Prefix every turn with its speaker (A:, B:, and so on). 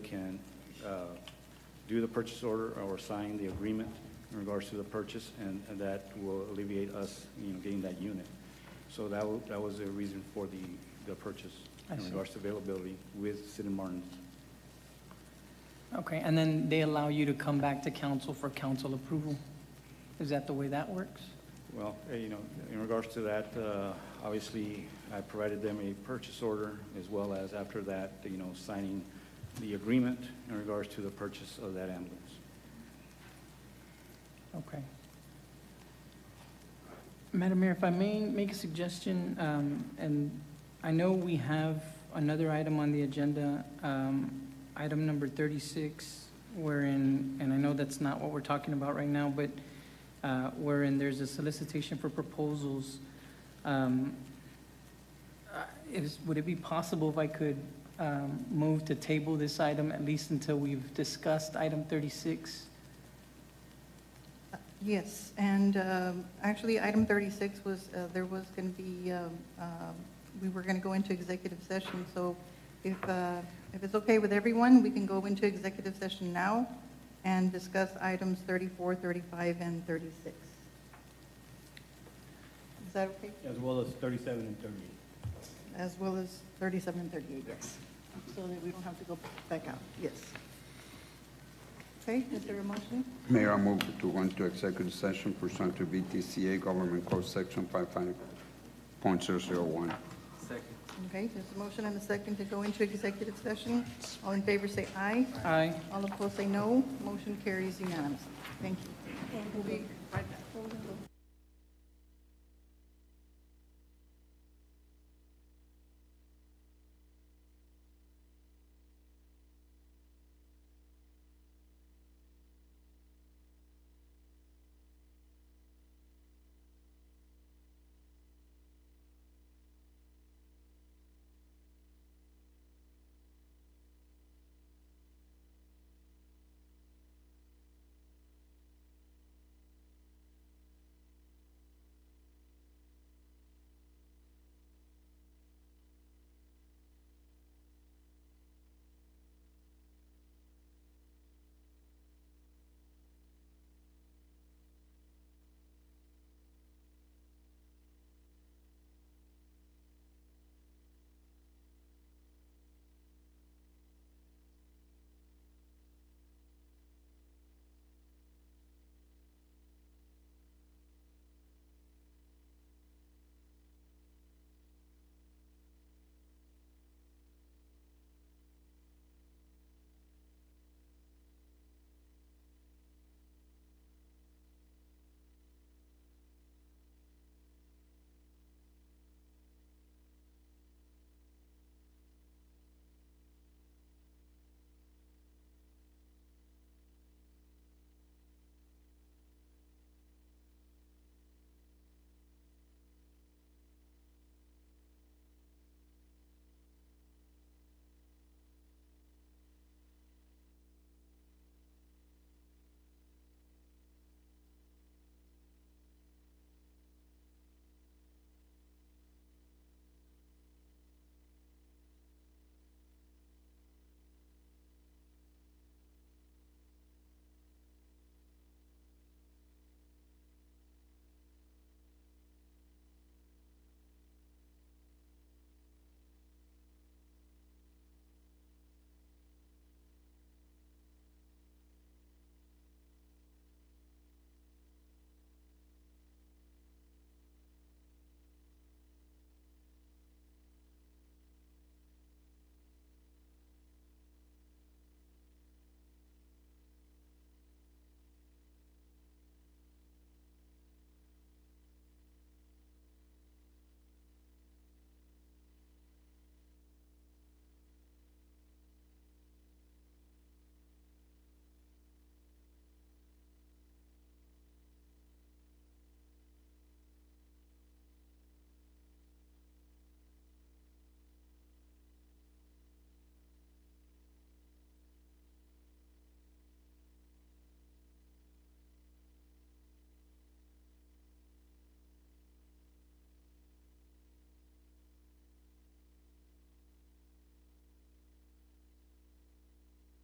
A: can uh, do the purchase order or sign the agreement in regards to the purchase, and and that will alleviate us, you know, getting that unit. So that, wa- that was the reason for the, the purchase
B: I
A: in
B: see.
A: regards to availability with Sid and Martin's.
B: Okay, and then they allow you to come back to council for council approval? Is that the way that works?
A: Well, eh, you know, in regards to that, uh, obviously, I provided them a purchase order as well as after that, you know, signing the agreement in regards to the purchase of that ambulance.
B: Okay. Madam Mayor, if I may make a suggestion, um, and I know we have another item on the agenda, um, item number 36, wherein, and I know that's not what we're talking about right now, but uh, wherein there's a solicitation for proposals. Um, uh, Is, would it be possible if I could um, move to table this item at least until we've discussed item 36?
C: Yes, and um, actually, item 36 was, uh, there was going to be, um, um, we were going to go into executive session, so if, uh, if it's okay with everyone, we can go into executive session now and discuss items 34, 35, and 36. Is that okay?
D: As well as 37 and 38.
C: As well as 37 and 38, yes. So that we don't have to go back out, yes. Okay, is there a motion?
E: Mayor, I move to go into executive session pursuant to VTCA Government Code Section 55.001.
C: Okay, there's a motion and a second to go into executive session. All in favor say aye.
B: Aye.
C: All opposed say no. Motion carries unanimously. Thank you. We'll be right back.